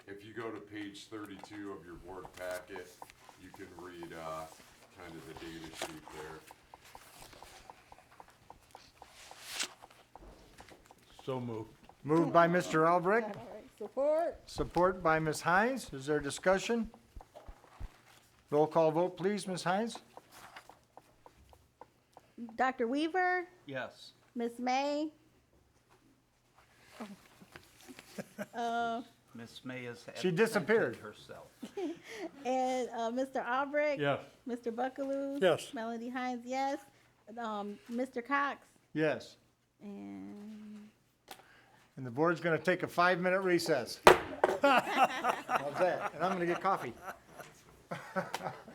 go to page thirty-two of your board packet, you can read, uh, kind of the data sheet there. So moved. Moved by Mr. Albrecht, All right, support? support by Ms. Hines. Is there discussion? Roll call vote, please, Ms. Hines? Dr. Weaver, Yes. Miss May, Miss May has. She absented disappeared. Herself. and, uh, Mr. Albrecht? Yes. Mr. Buckaloo? Yes. Melody Hines, yes. Um, Mr. Cox? Yes. And And the board's going to take a five-minute recess. How's that? And I'm going to get coffee.